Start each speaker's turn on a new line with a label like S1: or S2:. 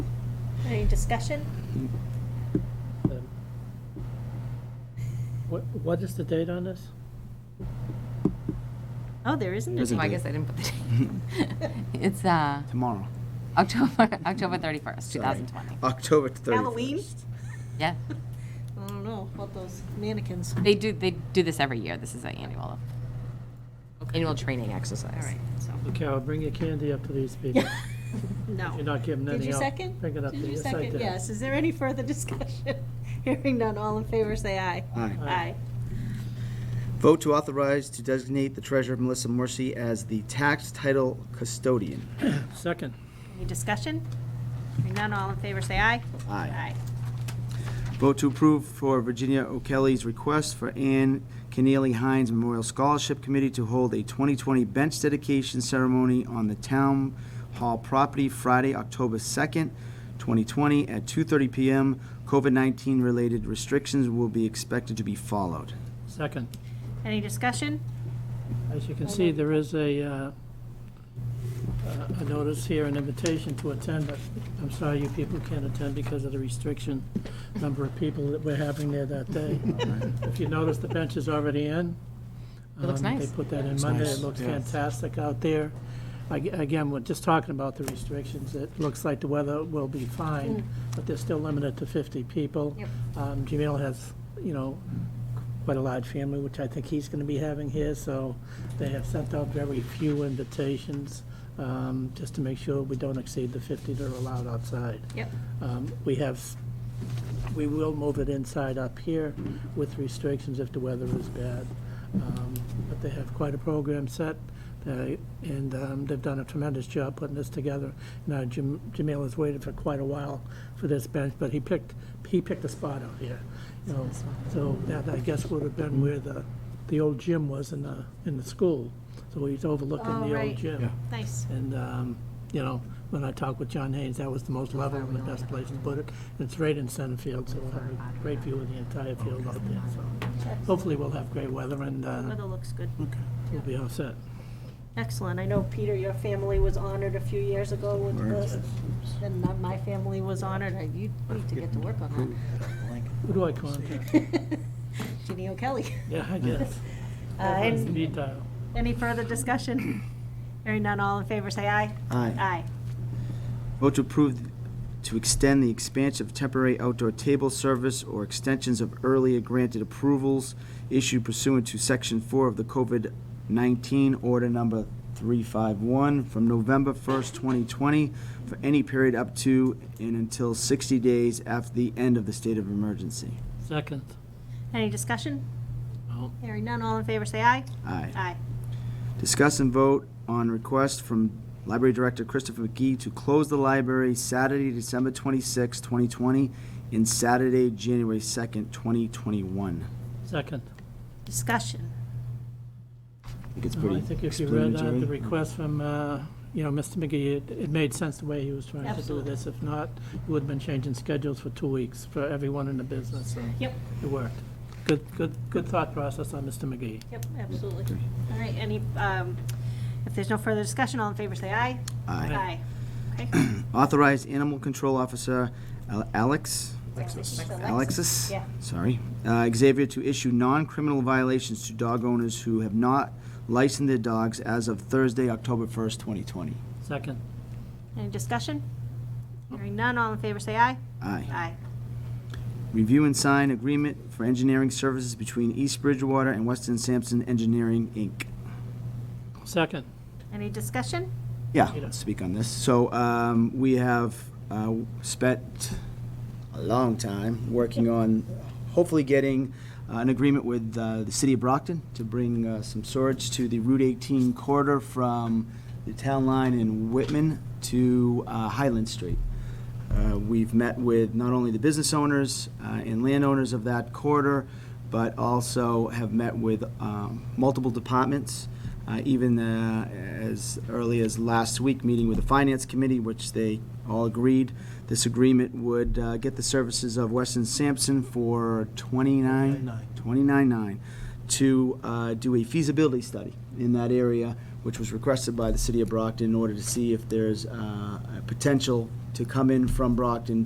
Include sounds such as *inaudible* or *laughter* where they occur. S1: Any discussion?
S2: Um, What, what is the date on this?
S1: Oh, there isn't. a-
S3: There's a
S4: Oh, I
S3: date.
S4: guess I didn't put the date. It's uh,
S3: Tomorrow.
S4: October, *laughs* October 31st,
S3: Sorry.
S4: 2020.
S3: October 31st.
S1: Halloween?
S4: Yeah.
S1: *laughs* I don't know about those mannequins.
S4: They do, they do this every year. This is an annual, annual training exercise.
S1: All right, *laughs* so,
S2: Carol, bring your candy up to these people.
S1: no.
S2: You're not giving
S1: Did
S2: anything
S1: you
S2: out.
S1: second?
S2: Bring it up.
S1: Did you
S2: Yes, I
S1: second?
S2: did.
S1: Yes. Is there any further *laughs* discussion? Hearing none, all in favor, say aye.
S3: Aye.
S1: Aye.
S3: Vote to authorize to designate the treasurer Melissa Morsi as the tax title custodian.
S2: Second.
S1: Any discussion? Hearing none, all in favor, say aye.
S3: Aye. Vote to approve for Virginia O'Kelly's request for Ann Keneally Hines Memorial Scholarship Committee to hold a 2020 bench dedication ceremony on the town hall property Friday, October 2nd, 2020, at 2:30 PM. COVID-19 related restrictions will be expected to be followed.
S2: Second.
S1: Any discussion?
S2: As you can see, there is a, uh, uh, a notice here, an invitation to attend, but I'm sorry you people can't attend because of the restriction, number of people that we're having there that *laughs* day. If you notice, the bench is already in.
S4: It looks
S2: Um,
S4: nice.
S2: They put that in Monday. It
S3: nice,
S2: looks
S3: yeah.
S2: fantastic out there. Ag- Again, we're just talking about the restrictions. It looks like the weather will be fine, but they're still limited to 50 people.
S1: Yep.
S2: Um, Jamil has, you know, quite a large family, which I think he's going to be having here, so they have sent out very few invitations, um, just to make sure we don't exceed the 50 that are allowed outside.
S1: Yep.
S2: Um, We have, we will move it inside up here with restrictions if the weather is bad. Um, But they have quite a program set, they- and um, they've done a tremendous job putting this together. Now, Jam- Jamil has waited for quite a while for this bench, but he picked, he picked a spot out here. you know. So that, I guess, would have been where the, the old gym was in the, in the school. So he's overlooking
S1: Oh,
S2: the
S1: right.
S2: old gym.
S1: Nice.
S2: And, um, you know, when I talked with John Haynes, that was the most level and the best place to put it. And It's right in center field, so we'll have a great view of the entire field out there, so hopefully we'll have great weather and, uh,
S1: Weather looks good.
S2: we'll be all set.
S1: Excellent. I know, Peter, your family was honored a few years ago with this, and not my family was honored. I- You need to get to work on
S2: Who do I contact?
S1: that. Jeannie O'Kelly.
S2: Yeah, I guess.
S1: *laughs* Uh, and
S2: Speed dial.
S1: Any further discussion? Hearing none, all in favor, say aye.
S3: Aye.
S1: Aye.
S3: Vote to approve to extend the expansion of temporary outdoor table service or extensions of earlier granted approvals issued pursuant to Section 4 of the COVID-19 Order Number 351 from November 1st, 2020, for any period up to and until 60 days after the end of the state of emergency.
S2: Second.
S1: Any discussion?
S2: No.
S1: Hearing none, all in favor, say aye.
S3: Aye.
S1: Aye.
S3: Discuss and vote on request from Library Director Christopher McGee to close the library Saturday, December 26, 2020, and Saturday, January 2nd, 2021.
S2: Second.
S1: Discussion.
S3: I think it's
S2: Well,
S3: pretty
S2: Oh, I think if you read that, the
S3: explanatory.
S2: request from, uh, you know, Mr. McGee, it- it made sense the way he was trying to do
S1: Absolutely.
S2: this. If not, you would have been changing schedules for two weeks for everyone in the business, so.
S1: Yep.
S2: It worked. Good, good, good thought process on Mr. McGee.
S1: Yep, absolutely. All right, any, um, if there's no further discussion, all in favor, say aye.
S3: Aye.
S1: Aye. Okay.
S3: Authorized Animal Control Officer Al- Alex, Alexis?
S1: Yeah.
S3: Sorry. Uh, Xavier to issue non-criminal violations to dog owners who have not licensed their dogs as of Thursday, October 1st, 2020.
S2: Second.
S1: Any discussion? Hearing none, all in favor, say aye.
S3: Aye.
S1: Aye.
S3: Review and sign agreement for engineering services between East Bridgewater and Weston Sampson Engineering, Inc.
S2: Second.
S1: Any discussion?
S3: Yeah, let's speak on this. So um, we have uh, spent a long time working on hopefully getting uh, an agreement with uh, the city of Brockton to bring uh, some storage to the Route 18 corridor from the town line in Whitman to uh, Highland Street. Uh, We've met with not only the business owners uh, and landowners of that corridor, but also have met with um, multiple departments, uh, even uh, as early as last week, meeting with the Finance Committee, which they all agreed this agreement would uh, get the services of Weston Sampson for 29 29.9 to uh, do a feasibility study in that area, which was requested by the city of Brockton in order to see if there's uh, a potential to come in from Brockton